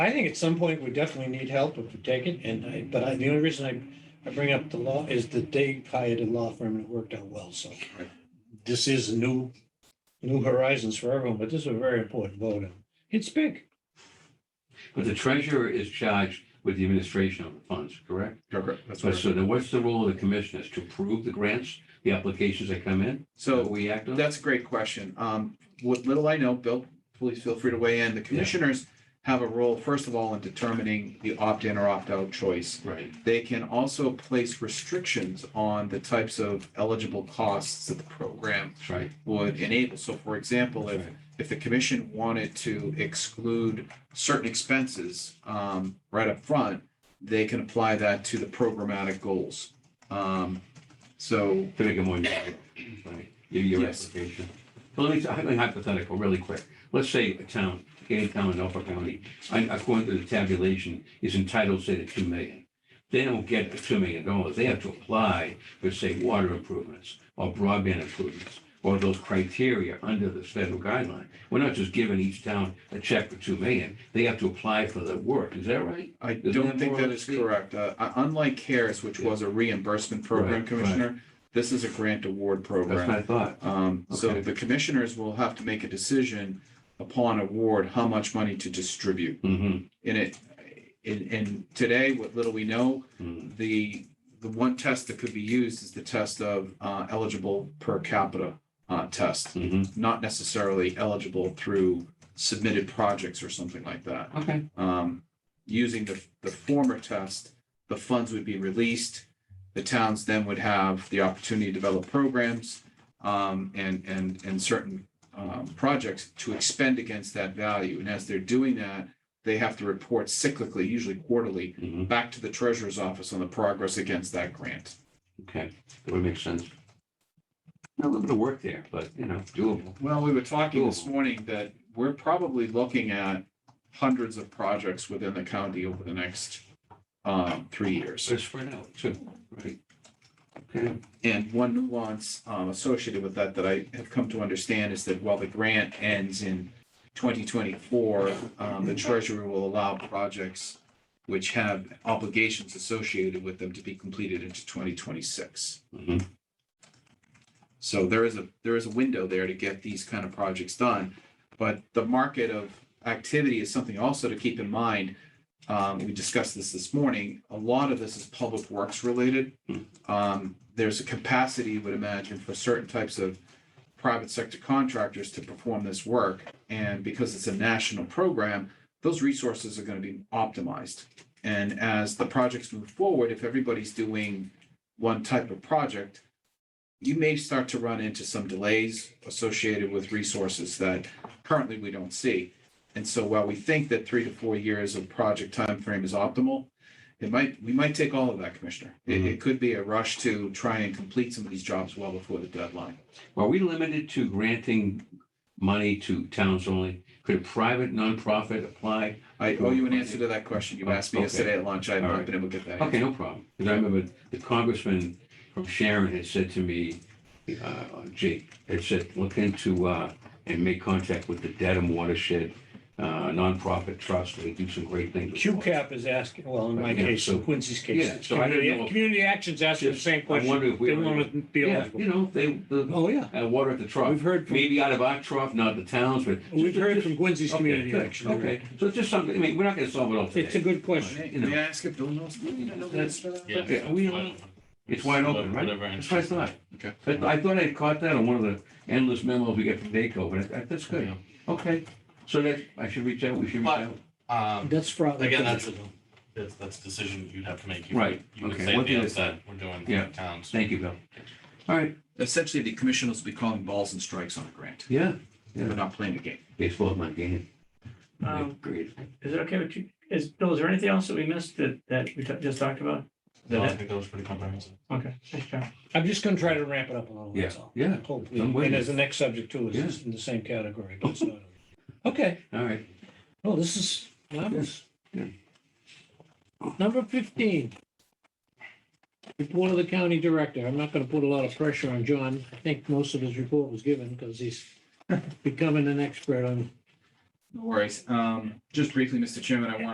I think at some point we definitely need help if we take it, and I, but I, the only reason I, I bring up the law is that they hired a law firm and it worked out well, so. Right. This is a new, new horizons for everyone, but this is a very important vote, and it's big. But the treasurer is charged with the administration of the funds, correct? Correct. That's So what. so then what's the role of the commissioners? To approve the grants, the applications that come in? So That We act on? That's a great question. Um, what little I know, Bill, please feel free to weigh in. The commissioners have a role, first of all, in determining the opt-in or opt-out choice. Right, They can also place restrictions on the types of eligible costs that the program that's right. would enable. So for example, that's if, right. if the commission wanted to exclude certain expenses, um, right up front, they can apply that to the programmatic goals. Um, so To make it more, narrow, right, your, your Yes. application. So let me, I'm gonna hypothetical, really quick. Let's say a town, any town in Norfolk County, I- according to the tabulation, is entitled, say, to two million. They don't get the two million dollars. They have to apply for, say, water improvements or broadband improvements or those criteria under the federal guideline. We're not just giving each town a check for two million. They have to apply for the work. Is that right? I Isn't don't that think more that or is less- correct. Uh, uh, Unlike CARES, which Yeah. was a reimbursement program, Right, Commissioner, this is a grant award That's my program. thought. Um, So Okay. the commissioners will have to make a decision upon award how much money to distribute. Mm-hmm. And it, and, and today, what little we know, Mm. the, the one test that could be used is the test of uh, eligible per capita uh, test, Mm-hmm. not necessarily eligible through submitted projects or something like that Okay. um, using the, the former test, the funds would be released. The towns then would have the opportunity to develop programs, um, and, and, and certain, um, projects to expend against that value. And as they're doing that, they have to report cyclically, usually quarterly, Mm-hmm. back to the treasurer's office on the progress against that grant. Okay, that would make sense. A little bit of work there, but, you know, doable. Well, we were talking this Doable. morning that we're probably looking at hundreds of projects within the county over the next, um, three years. Just for now, too, right? Okay, And one nuance um, associated with that that I have come to understand is that while the grant ends in 2024, um, the treasurer will allow projects which have obligations associated with them to be completed into 2026. Mhm. So there is a, there is a window there to get these kind of projects done. But the market of activity is something also to keep in mind. Um, We discussed this this morning. A lot of this is public works related. Um, There's a capacity, you would imagine, for certain types of private sector contractors to perform this work. And because it's a national program, those resources are going to be optimized. And as the projects move forward, if everybody's doing one type of project, you may start to run into some delays associated with resources that currently we don't see. And so while we think that three to four years of project timeframe is optimal, it might, we might take all of that, Commissioner. It, it could be a rush to try and complete some of these jobs well before the deadline. are we limited to granting money to towns only? Could a private nonprofit apply? I owe you an answer to that question. You asked me Okay. yesterday at lunch. I have All not right. been able to get that Okay, answer. no problem, because I remember the congressman from Sharon had said to me, uh, Jake, had said, look into, uh, and make contact with the Dedham Watershed uh, nonprofit trust, they do some great things. QCAP is asking, well, in my Yeah, case, so- in Quincy's case, yeah, it's so I didn't community, know if- community action's asking the same I question. wonder if we. They already- want to be Yeah, eligible. you know, they, the, Oh, yeah. uh, water at the trough. We've heard, from Maybe out of our trough, not the towns, but. we've heard from Quincy's Okay, community good, action. Okay, so it's just something, I mean, we're not gonna solve it all It's a today. good question. May You know. may I ask if Bill knows? That's- Yeah. Yeah, we don't- Whatever. It's wide open, right? Whatever That's what I answer. thought. Okay. But I thought I caught that on one of the endless memos we get from Daco, but that- that's good. Yeah. Okay, so that, I should reach out, we should reach But- out. Um, That's fraud. Again, that's a- that's, that's a decision you'd have to make. You- Right, You would okay. say What at the did it say? outset, we're doing Yeah. towns. Thank you, Bill. All right, Essentially, the commissioners will be calling balls and strikes on a grant. yeah, They're not playing the game. baseball's my game. Um, Great. Is it okay with you? Is, Bill, is there anything else that we missed that, that we t- just talked about? No, I think that was pretty comprehensive. Okay, thanks, John. I'm just going to try to ramp it up a little, that's all. Yeah, Hopefully, I'm with and you. as the next subject too is in the same category. but it's not. Okay, all right. well, this is marvelous. Number fifteen. Report of the county director. I'm not going to put a lot of pressure on John. I think most of his report was given because he's becoming an expert on No worries. Um, just briefly, Mr. Chairman, I want